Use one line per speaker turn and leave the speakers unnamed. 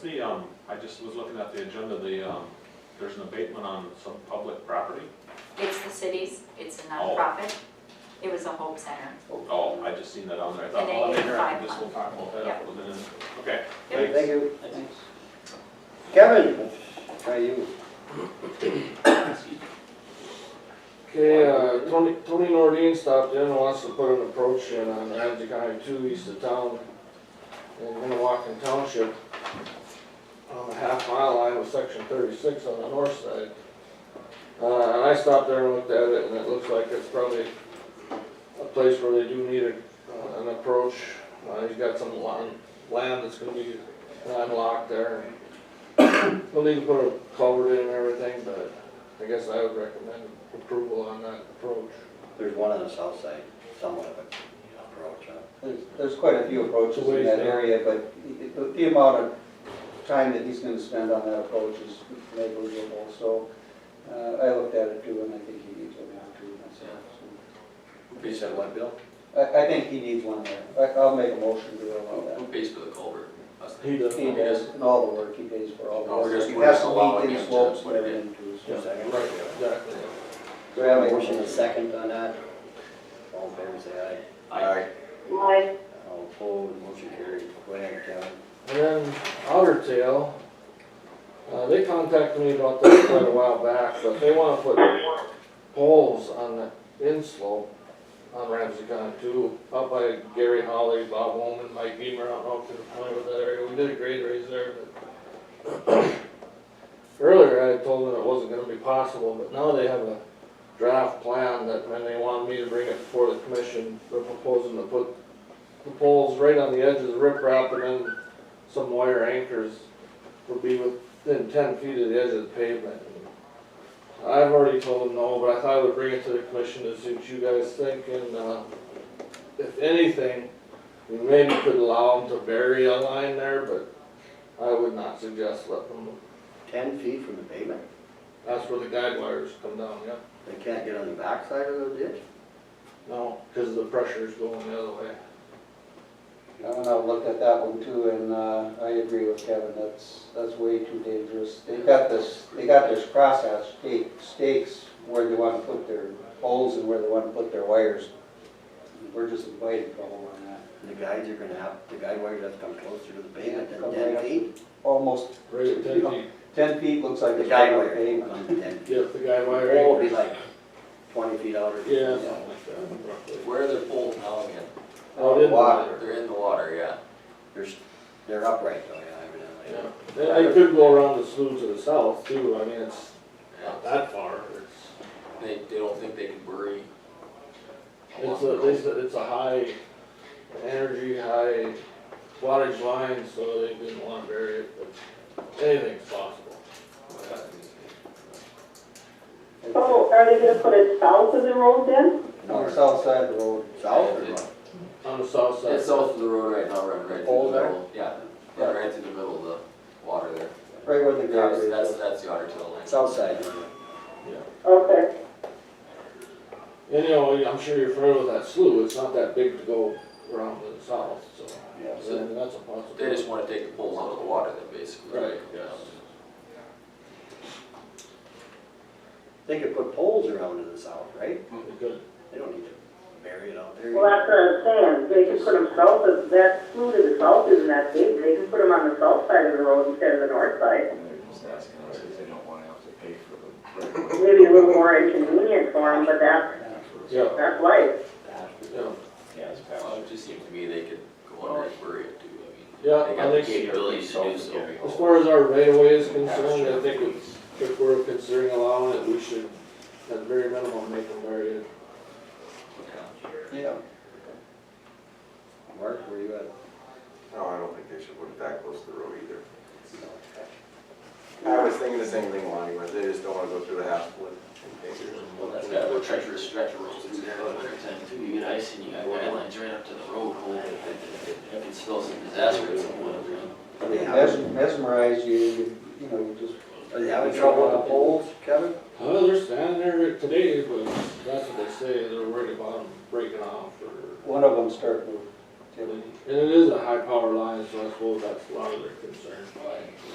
the, um, I just was looking at the agenda, the, um, there's an abatement on some public property.
It's the city's, it's a nonprofit. It was a hope center.
Oh, I just seen that on there, I thought,
And
oh, I'm
they
ignorant,
get
this will
five
talk about that
Yeah.
a little bit, okay,
Yep.
thanks.
Thank you. Kevin, let's try you.
Okay, uh, Tony, Tony Nordine stopped in and wants to put an approach in on Ramsey County two east of town. In Minnewacan Township, on the half mile line of section thirty-six on the north side. Uh, and I stopped there and looked at it and it looks like it's probably a place where they do need a, uh, an approach. Uh, he's got some land, land that's gonna be landlocked there. We'll need to put a culvert in and everything, but I guess I would recommend approval on that approach.
There's one on the south side, somewhat of an approach, huh?
There's, there's quite a few approaches in
Ways
that
down.
area, but the- the, the amount of time that he's gonna spend on that approach is negligible, so, uh, I looked at it too, and I think he needs one now too, myself, so.
Who pays for
what, Bill?
I, I think he needs one there, I, I'll make a motion to allow
Who
that.
pays for the culvert? Us.
He does.
He does, and all the work, he pays for all the
No, we're
work,
just-
he
we're
has
just
to
allowing
meet
him
these
to
slopes,
split it.
whatever he too, so.
Second.
Right, exactly.
Do we have a motion and a second on that? All in favor, say
Aye.
aye. All opposed, motion carried. Go ahead, Kevin.
And then Otter Tail, uh, they contacted me about that quite a while back, but they wanna put poles on the inslope on Ramsey County too, up by Gary Holly, Bob Woman, Mike Beamer, I don't know if you're familiar with that area, we did a grade raise there, but earlier I had told them it wasn't gonna be possible, but now they have a draft plan that, and they wanted me to bring it before the commission, they're proposing to put the poles right on the edge of the riprap and then some wire anchors would be within ten feet of the edge of the pavement. I've already told them no, but I thought I would bring it to the commission to see what you guys think, and, uh, if anything, we maybe could allow them to bury a line there, but I would not suggest let them,
Ten feet from the pavement?
that's where the guide wires come down, yep.
They can't get on the backside of the ditch?
No, cause the pressure's going the other way.
And I looked at that one too, and, uh, I agree with Kevin, that's, that's way too dangerous. They got this, they got this crosshatch stake, stakes where they wanna put their poles and where they wanna put their wires. We're just inviting trouble on that.
The guides are gonna have, the guide wires have to come closer to the pavement than
Come
ten
right up.
feet.
Almost
Right at ten feet,
ten feet looks like
The
it's
guide
on
wire
pavement.
comes to ten feet.
yep, the guide
The
wire
pole will be
anchors.
like twenty feet out or.
Yeah, something like that, roughly.
Where are their poles now again?
Out in the
Water.
They're in the water, yeah.
They're, s- they're upright though, yeah, evidently.
Yeah, I could go around the slough to the south too, I mean, it's
Yeah.
not that far, it's,
They, they don't think they can bury.
it's a, they said it's a high energy, high wattage line, so they didn't wanna bury it, but anything's possible.
Oh, are they gonna put it south of the road then?
On the south side of the road.
South or north?
On the south side.
It's south of the road right now, running right through
Poles
the
there?
middle. Yeah, yeah, right through the middle of the water there.
Right where the guide
That's, that's,
is.
that's the otter tail line.
South side.
Okay,
Anyhow, I'm sure you're familiar with that slough, it's not that big to go around to the south, so,
Yeah.
I mean, that's a possibility.
They just wanna take the poles out of the water then, basically.
Right,
Yeah.
They could put poles around to the south, right?
They could.
They don't need to bury it out there.
well, that's what I'm saying, they can put them south of, that slough to the south isn't that big, they can put them on the south side of the road instead of the north side.
And they're just asking us if they don't wanna have to pay for the right of way.
Maybe a little more inconvenient for them, but that's,
Yeah,
that's life.
yeah,
Yeah, it's past.
Well, it just seems to me they could go under and bury it too, I mean.
yeah,
They
I
got the
think. so.
capabilities to do so.
As far as our right of way is concerned, I think it's, if we're considering allowing it, we should, at very minimum, make them bury it.
Yeah.
Yeah.
Mark, where you at?
No, I don't think they should put it that close to the road either. I was thinking the same thing, Lonnie, but they just don't wanna go through the half foot and pay for it.
Well, that's got a treacherous stretch of roads through there in the winter time too, you get ice and you got guidelines right up to the road, hole. you can still some disaster at some point, you know?
Are they having,
Mes- Mesmerize you, you, you know, you just
are they having trouble with the poles, Kevin?
Well, they're standing there today, but that's what they say, they're worried about them breaking off or,
One of them start moving.
and it is a high power line, so I suppose that's a lot of their concern, but.